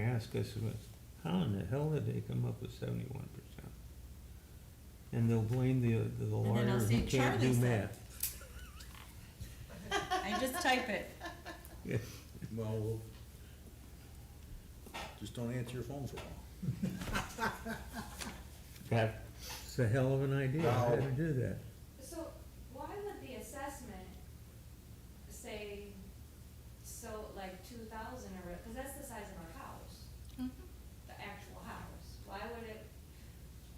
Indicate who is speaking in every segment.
Speaker 1: ask us, was, how in the hell did they come up with seventy-one percent? And they'll blame the, the
Speaker 2: And then I'll
Speaker 1: lawyer who
Speaker 2: say,
Speaker 1: can't
Speaker 2: "Charlie
Speaker 1: do
Speaker 2: said."
Speaker 1: math.
Speaker 2: I just type it.
Speaker 1: Yeah.
Speaker 3: Well, just don't answer your phone for long.
Speaker 1: That's a hell of an idea, how to do that.
Speaker 4: So why would the assessment say, so like two thousand or, because that's the size of our house,
Speaker 5: Mm-hmm.
Speaker 4: the actual house. Why would it,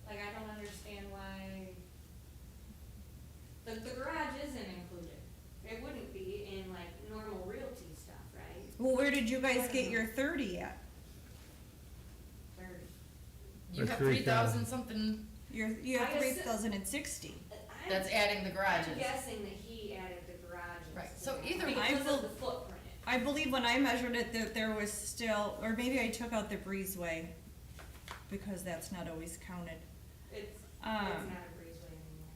Speaker 4: like, I don't understand why, the, the garage isn't included. It wouldn't be in like normal realty stuff, right?
Speaker 2: Well, where did you guys get your thirty at?
Speaker 4: Or-
Speaker 5: You
Speaker 1: Or
Speaker 5: have three
Speaker 1: 3,000.
Speaker 5: thousand something,
Speaker 2: Your, you
Speaker 4: I
Speaker 2: have three
Speaker 4: guess-
Speaker 2: thousand and sixty.
Speaker 4: I'm-
Speaker 5: that's adding the
Speaker 4: I'm
Speaker 5: garages.
Speaker 4: guessing that he added the garage. and
Speaker 5: Right,
Speaker 4: stuff.
Speaker 5: so either
Speaker 2: way,
Speaker 4: Because
Speaker 2: I will-
Speaker 4: of the footprint.
Speaker 2: I believe when I measured it, that there was still, or maybe I took out the breezeway, because that's not always counted.
Speaker 4: It's, it's
Speaker 2: Um,
Speaker 4: not a breezeway anymore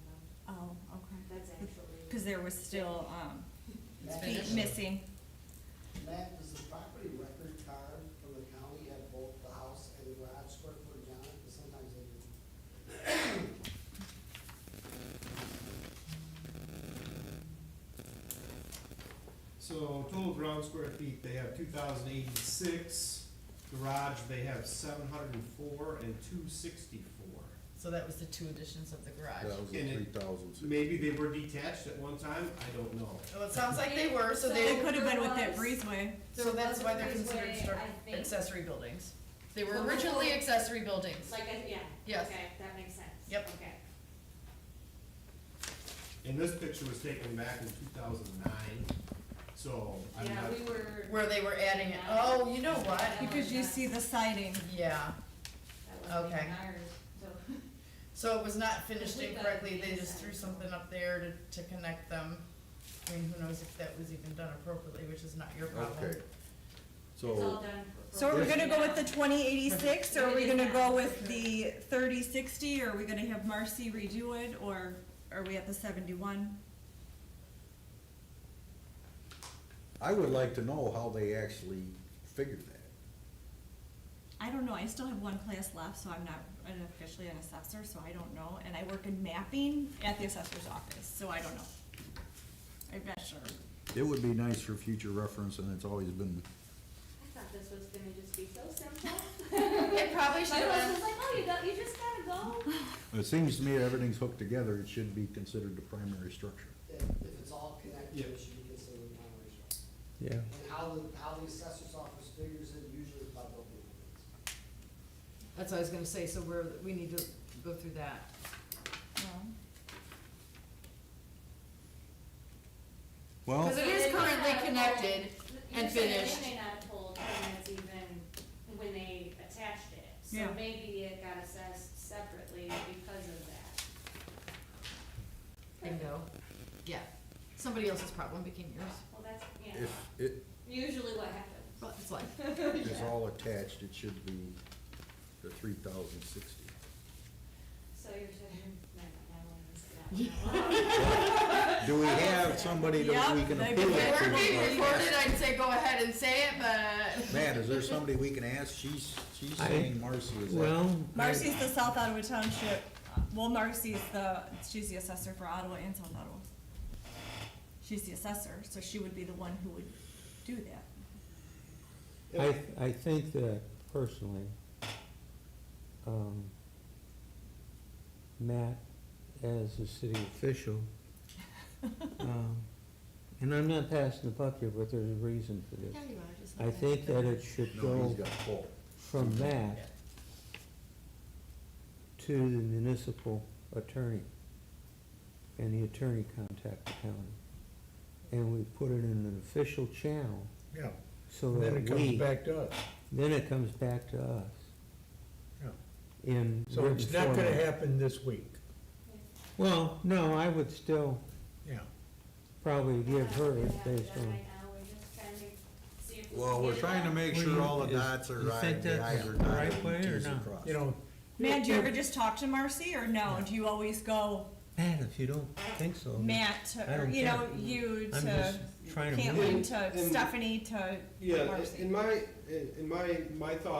Speaker 4: though.
Speaker 2: Oh, okay.
Speaker 4: That's actually.
Speaker 2: Cause there was still, um,
Speaker 5: It's
Speaker 2: feet
Speaker 5: finished.
Speaker 2: missing.
Speaker 6: Matt, does the property record card from the county have both the house and the garage square footage on it? Because sometimes they do.
Speaker 7: So total ground square feet, they have two thousand eighty-six, garage, they have seven hundred and four and two sixty-four.
Speaker 5: So that was the two additions of the garage.
Speaker 3: That was
Speaker 7: And
Speaker 3: the
Speaker 7: it-
Speaker 3: three thousand.
Speaker 7: Maybe they were detached at one time, I don't know.
Speaker 5: Well, it sounds like they were, so
Speaker 2: It
Speaker 5: they,
Speaker 2: could have been with that
Speaker 4: There was-
Speaker 2: breezeway.
Speaker 5: so that's why they're
Speaker 4: There was a
Speaker 5: considered
Speaker 4: breezeway,
Speaker 5: stru-
Speaker 4: I think.
Speaker 5: accessory buildings. They were
Speaker 4: Well,
Speaker 5: originally
Speaker 4: before-
Speaker 5: accessory buildings.
Speaker 4: Like, I- yeah.
Speaker 5: Yes.
Speaker 4: Okay, that makes sense.
Speaker 5: Yep.
Speaker 4: Okay.
Speaker 7: And this picture was taken back in two thousand nine, so I'm
Speaker 4: Yeah,
Speaker 7: not,
Speaker 4: we were.
Speaker 5: Where they were adding it, oh, you know what?
Speaker 2: Because you see the siding.
Speaker 5: Yeah,
Speaker 4: That wasn't
Speaker 5: okay.
Speaker 4: even ours, so.
Speaker 5: so it was not finished incorrectly, they just threw something up there to, to connect them. I mean, who knows if that was even done appropriately, which is not your problem.
Speaker 3: Okay.
Speaker 4: It's all
Speaker 3: So,
Speaker 4: done. for-
Speaker 2: So are we
Speaker 4: for-
Speaker 2: gonna go with the twenty eighty-six, or are we gonna go with
Speaker 4: Sure.
Speaker 2: the thirty sixty, or are we gonna have Marcy redo it, or are we at the seventy-one?
Speaker 3: I would like to know how they actually figured that.
Speaker 2: I don't know, I still have one class left, so I'm not an- officially an assessor, so I don't know, and I work in mapping at the assessor's office, so I don't know. I'm not sure.
Speaker 3: It would be nice for future reference, and it's always been,
Speaker 4: I thought this was gonna just be so simple.
Speaker 5: It probably should
Speaker 4: My husband
Speaker 5: have
Speaker 4: was like, oh, you don't, you just gotta go.
Speaker 3: it seems to me everything's hooked together, it should be considered the primary structure.
Speaker 6: If, if it's all connected,
Speaker 7: Yeah.
Speaker 6: it should be considered one ratio.
Speaker 1: Yeah.
Speaker 6: And how the, how the assessor's office figures it usually is by building permits.
Speaker 5: That's what I was gonna say, so we're, we need to go through that.
Speaker 2: No.
Speaker 3: Well,
Speaker 5: Because it is
Speaker 4: They may not
Speaker 5: currently
Speaker 4: have told-
Speaker 5: connected and
Speaker 4: usually
Speaker 5: finished.
Speaker 4: They may not have told tenants even when they attached it.
Speaker 2: Yeah.
Speaker 4: So maybe it got assessed separately because of that.
Speaker 5: Bingo. Yeah, somebody else's problem became yours,
Speaker 4: Well, that's, yeah,
Speaker 3: if it
Speaker 4: usually what happens.
Speaker 5: but it's life.
Speaker 3: is all attached, it should be the three thousand sixty.
Speaker 4: So you're saying, no, no, no, no, no, no.
Speaker 3: Do we have somebody that we can
Speaker 2: Yep,
Speaker 3: appeal
Speaker 5: If it
Speaker 3: it
Speaker 5: were being
Speaker 3: to?
Speaker 5: recorded, I'd say go ahead and say it, but.
Speaker 3: Matt, is there somebody we can ask? She's, she's
Speaker 1: I-
Speaker 3: saying Marcy is that.
Speaker 1: Well. I-
Speaker 2: Marcy's the South Ottawa Township, Uh, well, Marcy's the, she's the assessor for Ottawa and South Ottawa. She's the assessor, so she would be the one who would do that.
Speaker 1: I, I think that personally, um, Matt, as a city official, um, and I'm not passing the buck here, but there's a reason for this.
Speaker 5: Yeah, you are, just
Speaker 1: I
Speaker 5: not-
Speaker 1: think that it should
Speaker 3: No, he's
Speaker 1: go
Speaker 3: got full.
Speaker 1: from Matt to the municipal attorney, and the attorney contact the county. And we put it in an official channel
Speaker 8: Yeah,
Speaker 1: so
Speaker 8: and
Speaker 1: that
Speaker 8: then
Speaker 1: we.
Speaker 8: it comes back to us.
Speaker 1: Then it comes back to us.
Speaker 8: Yeah.
Speaker 1: In
Speaker 8: So it's
Speaker 1: written
Speaker 8: not gonna
Speaker 1: format.
Speaker 8: happen this week,
Speaker 1: Well, no, I would still
Speaker 8: yeah.
Speaker 1: probably give her
Speaker 4: Yeah,
Speaker 1: it based
Speaker 4: yeah,
Speaker 1: on,
Speaker 4: right now, we're just trying to see if we
Speaker 3: Well,
Speaker 4: can
Speaker 3: we're
Speaker 4: get
Speaker 3: trying to
Speaker 4: along.
Speaker 3: make
Speaker 1: Well,
Speaker 3: sure
Speaker 1: you-
Speaker 3: all the
Speaker 1: is-
Speaker 3: dots are
Speaker 1: you
Speaker 3: right,
Speaker 1: think
Speaker 3: and the
Speaker 1: that's
Speaker 3: i's are
Speaker 1: the
Speaker 3: dotted,
Speaker 1: right
Speaker 3: and
Speaker 1: way
Speaker 3: the
Speaker 1: or
Speaker 3: t's are
Speaker 1: not?
Speaker 3: crossed.
Speaker 8: You know,
Speaker 2: Matt, do you ever just talk to Marcy, or no, do you always go
Speaker 1: Matt, if you don't think so.
Speaker 2: Matt, uh, to-
Speaker 1: I
Speaker 2: or,
Speaker 1: don't
Speaker 2: you know,
Speaker 1: care.
Speaker 2: you
Speaker 1: I'm
Speaker 2: to
Speaker 1: just trying to.
Speaker 7: win.
Speaker 2: Caitlin, to
Speaker 7: And-
Speaker 2: Stephanie, to
Speaker 7: Yeah,
Speaker 2: Marcy?
Speaker 7: in my, in my, my thought